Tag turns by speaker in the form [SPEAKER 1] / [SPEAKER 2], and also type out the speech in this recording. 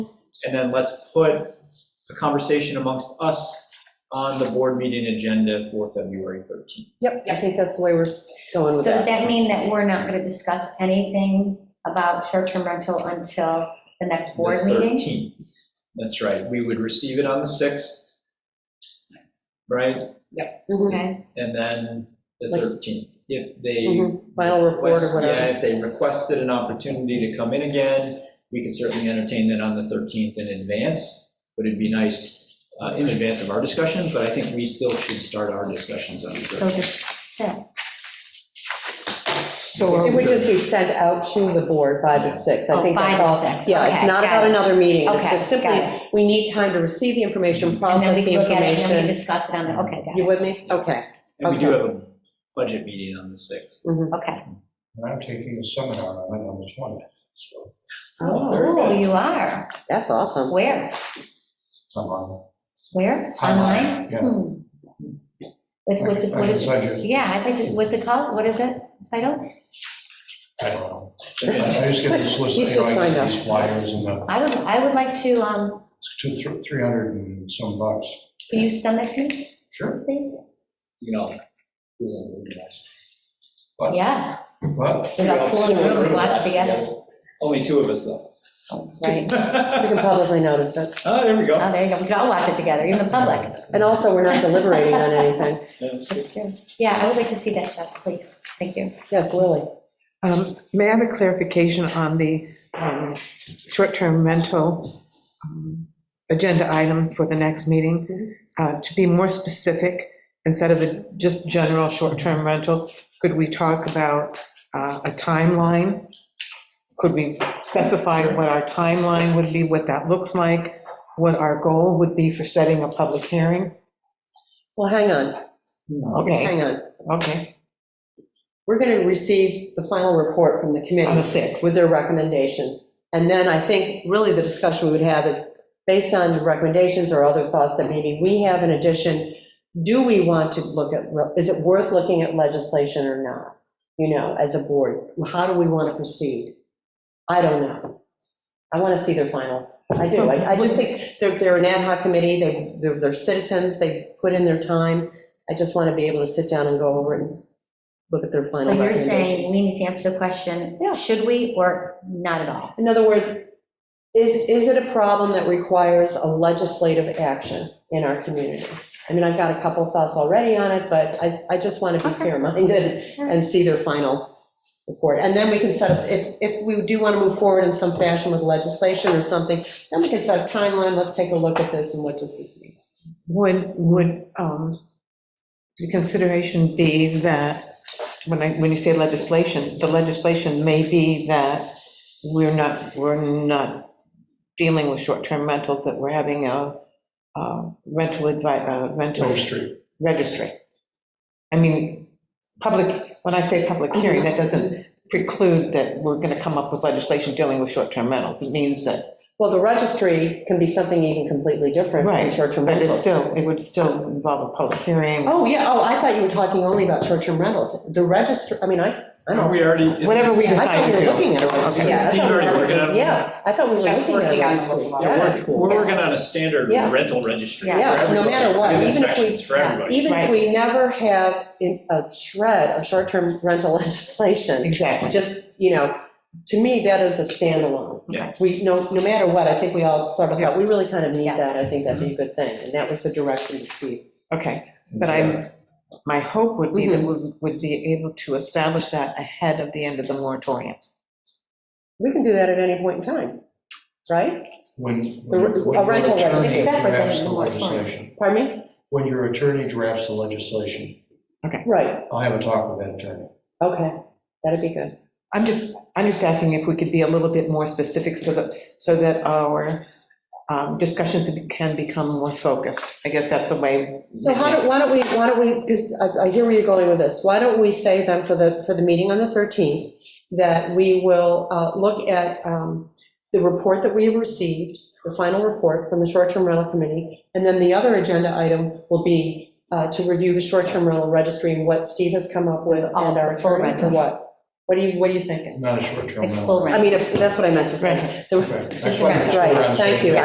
[SPEAKER 1] And then let's put a conversation amongst us on the board meeting agenda for February 13th.
[SPEAKER 2] Yep, I think that's the way we're going
[SPEAKER 3] So
[SPEAKER 2] with
[SPEAKER 3] does
[SPEAKER 2] that.
[SPEAKER 3] that mean that we're not going to discuss anything about short-term rental until the next board
[SPEAKER 1] The
[SPEAKER 3] meeting?
[SPEAKER 1] 13th. That's right. We would receive it on the 6th, right?
[SPEAKER 2] Mhm,
[SPEAKER 3] Okay,
[SPEAKER 1] And then the
[SPEAKER 2] Like-
[SPEAKER 1] 13th. If they
[SPEAKER 2] mhm. Final report or
[SPEAKER 1] request- Yeah,
[SPEAKER 2] whatever.
[SPEAKER 1] if they requested an opportunity to come in again, we could certainly entertain that on the 13th in advance. But it'd be nice uh, in advance of our discussion, but I think we still should start our discussions on the 13th.
[SPEAKER 3] so the sixth.
[SPEAKER 2] So It would just be sent out to the board by the 6th. I
[SPEAKER 3] Oh,
[SPEAKER 2] think
[SPEAKER 3] by
[SPEAKER 2] that's
[SPEAKER 3] the
[SPEAKER 2] all.
[SPEAKER 3] 6th,
[SPEAKER 2] Yeah, it's
[SPEAKER 3] okay,
[SPEAKER 2] not
[SPEAKER 3] got
[SPEAKER 2] about
[SPEAKER 3] it.
[SPEAKER 2] another meeting. It's
[SPEAKER 3] Okay,
[SPEAKER 2] just
[SPEAKER 3] got
[SPEAKER 2] simply,
[SPEAKER 3] it.
[SPEAKER 2] we need time to receive the information,
[SPEAKER 3] And then
[SPEAKER 2] process
[SPEAKER 3] we
[SPEAKER 2] the
[SPEAKER 3] can look at it and then we
[SPEAKER 2] information.
[SPEAKER 3] discuss it on the, okay, got
[SPEAKER 2] You
[SPEAKER 3] it.
[SPEAKER 2] with me? Okay.
[SPEAKER 1] And we do have a budget meeting on the 6th.
[SPEAKER 2] mhm.
[SPEAKER 3] Okay.
[SPEAKER 4] And I'm taking a seminar on it on the 20th, so
[SPEAKER 2] Oh,
[SPEAKER 3] Oh, you are.
[SPEAKER 2] That's awesome.
[SPEAKER 3] Where?
[SPEAKER 4] I'm on.
[SPEAKER 3] Where? Online?
[SPEAKER 4] Online, yeah.
[SPEAKER 3] Hmm. It's, what's it,
[SPEAKER 4] I
[SPEAKER 3] what
[SPEAKER 4] can
[SPEAKER 3] is,
[SPEAKER 4] send you-
[SPEAKER 3] yeah, I'd like to, what's it called? What is it titled?
[SPEAKER 4] I don't know. I
[SPEAKER 1] Again,
[SPEAKER 4] just get this list,
[SPEAKER 2] You
[SPEAKER 4] you know,
[SPEAKER 2] should
[SPEAKER 4] I
[SPEAKER 2] sign
[SPEAKER 4] get these flyers and the,
[SPEAKER 3] I would, I would like to, um,
[SPEAKER 4] it's two, thr- 300 and some bucks.
[SPEAKER 3] can you send that to me,
[SPEAKER 4] Sure.
[SPEAKER 3] please?
[SPEAKER 1] You know, we will organize.
[SPEAKER 4] But-
[SPEAKER 3] Yeah,
[SPEAKER 4] But
[SPEAKER 3] we're all pulling a room and watch together,
[SPEAKER 1] Only two of us though.
[SPEAKER 3] right?
[SPEAKER 2] You can
[SPEAKER 1] Oh,
[SPEAKER 2] publicly notice it.
[SPEAKER 1] there we go.
[SPEAKER 3] Oh, there you go, we can all watch it together, even the public.
[SPEAKER 2] And also, we're not deliberating on anything.
[SPEAKER 3] That's true. Yeah, I would like to see that, Jeff, please. Thank you.
[SPEAKER 2] Yes, Lily.
[SPEAKER 5] Um, May I have a clarification on the um, short-term rental um, agenda item for the next meeting? Uh, To be more specific, instead of a- just general short-term rental, could we talk about uh, a timeline? Could we specify what our timeline would be, what that looks like, what our goal would be for setting a public hearing?
[SPEAKER 2] Well, hang on,
[SPEAKER 5] Okay,
[SPEAKER 2] hang on.
[SPEAKER 5] okay,
[SPEAKER 2] We're going to receive the final report from the committee.
[SPEAKER 5] on the 6th.
[SPEAKER 2] with their recommendations. And then I think really the discussion we would have is, based on the recommendations or other thoughts that maybe we have in addition, do we want to look at, is it worth looking at legislation or not? You know, as a board, how do we want to proceed? I don't know. I want to see their final. I do. I I just think they're, they're an ad hoc committee, they, they're they're citizens, they put in their time. I just want to be able to sit down and go over it and look at their
[SPEAKER 3] So
[SPEAKER 2] final
[SPEAKER 3] you're
[SPEAKER 2] recommendations.
[SPEAKER 3] saying we need to answer the question,
[SPEAKER 2] Yeah.
[SPEAKER 3] should we or not at all?
[SPEAKER 2] In other words, is, is it a problem that requires a legislative action in our community? I mean, I've got a couple of thoughts already on it, but I, I just want to be
[SPEAKER 3] Okay.
[SPEAKER 2] fair-minded and see their final report. And then we can set up, if, if we do want to move forward in some fashion with legislation or something, then we can set a timeline, let's take a look at this and what does this mean?
[SPEAKER 5] Would, would um, the consideration be that, when I, when you say legislation, the legislation may be that we're not, we're not dealing with short-term rentals, that we're having a uh, rental advi, uh, rental
[SPEAKER 4] Grove Street.
[SPEAKER 5] registry. I mean, public, when I say public hearing, that doesn't preclude that we're going to come up with legislation dealing with short-term rentals. It means that,
[SPEAKER 2] Well, the registry can be something even completely different from
[SPEAKER 5] Right,
[SPEAKER 2] short-term
[SPEAKER 5] but it's
[SPEAKER 2] rentals.
[SPEAKER 5] still, it would still involve a public hearing.
[SPEAKER 2] Oh, yeah, oh, I thought you were talking only about short-term rentals. The register, I mean, I, I
[SPEAKER 1] Are
[SPEAKER 2] don't.
[SPEAKER 1] we already?
[SPEAKER 5] Whatever we
[SPEAKER 2] I thought
[SPEAKER 5] decide
[SPEAKER 2] we
[SPEAKER 5] to
[SPEAKER 2] were
[SPEAKER 5] do.
[SPEAKER 2] looking at it.
[SPEAKER 5] Okay.
[SPEAKER 2] Yeah, I
[SPEAKER 1] Steve
[SPEAKER 2] thought we were
[SPEAKER 1] already working
[SPEAKER 2] looking-
[SPEAKER 1] on it?
[SPEAKER 2] Yeah, I thought we were
[SPEAKER 6] Jeff's
[SPEAKER 2] looking at it.
[SPEAKER 6] working on it.
[SPEAKER 2] last week.
[SPEAKER 1] Yeah,
[SPEAKER 2] Yeah.
[SPEAKER 1] We're we're working on a standard
[SPEAKER 2] Yeah.
[SPEAKER 1] rental registry.
[SPEAKER 3] Yeah.
[SPEAKER 1] for
[SPEAKER 2] Yeah, no
[SPEAKER 1] everybody.
[SPEAKER 2] matter what,
[SPEAKER 1] And
[SPEAKER 2] even if we-
[SPEAKER 1] inspections For
[SPEAKER 3] yeah,
[SPEAKER 1] everybody.
[SPEAKER 2] Even if
[SPEAKER 5] Right.
[SPEAKER 2] we never have in- a shred of short-term rental legislation,
[SPEAKER 5] Exactly.
[SPEAKER 2] just, you know, to me, that is a standalone.
[SPEAKER 1] Yeah.
[SPEAKER 2] We, no, no matter what, I think we all sort of thought, we really kind of need
[SPEAKER 3] Yes.
[SPEAKER 2] that. I think that'd be a good thing. And that was the direction to Steve.
[SPEAKER 5] Okay, but I'm, my hope would be that
[SPEAKER 2] Mm-hmm.
[SPEAKER 5] we would be able to establish that ahead of the end of the moratorium.
[SPEAKER 2] We can do that at any point in time, right?
[SPEAKER 4] When.
[SPEAKER 2] The re- a rental registry.
[SPEAKER 3] It's separate than
[SPEAKER 4] Drafts
[SPEAKER 3] the
[SPEAKER 4] the
[SPEAKER 3] moratorium.
[SPEAKER 4] legislation.
[SPEAKER 2] Pardon me?
[SPEAKER 4] When your attorney drafts the legislation,
[SPEAKER 2] Right,
[SPEAKER 4] I'll have a talk with that attorney.
[SPEAKER 2] okay, that'd be good.
[SPEAKER 5] I'm just, I'm just asking if we could be a little bit more specific so that, so that our um, discussions can become more focused. I guess that's the way.
[SPEAKER 2] So how do, why don't we, why don't we, because I I hear where you're going with this, why don't we say then for the, for the meeting on the 13th, that we will uh, look at um, the report that we received, the final report from the short-term rental committee, and then the other agenda item will be uh, to review the short-term rental registry and what Steve has come up with and
[SPEAKER 3] Oh,
[SPEAKER 2] our
[SPEAKER 3] full
[SPEAKER 2] attorney,
[SPEAKER 3] rental.
[SPEAKER 2] what? What are you, what are you thinking?
[SPEAKER 4] Not a short-term.
[SPEAKER 3] It's
[SPEAKER 4] rental.
[SPEAKER 3] full
[SPEAKER 2] I
[SPEAKER 3] rental.
[SPEAKER 2] mean, if- that's what I meant to say. The-
[SPEAKER 4] Okay, I just wanted to make sure we're on
[SPEAKER 2] Right,
[SPEAKER 4] the same
[SPEAKER 2] thank you.
[SPEAKER 4] page.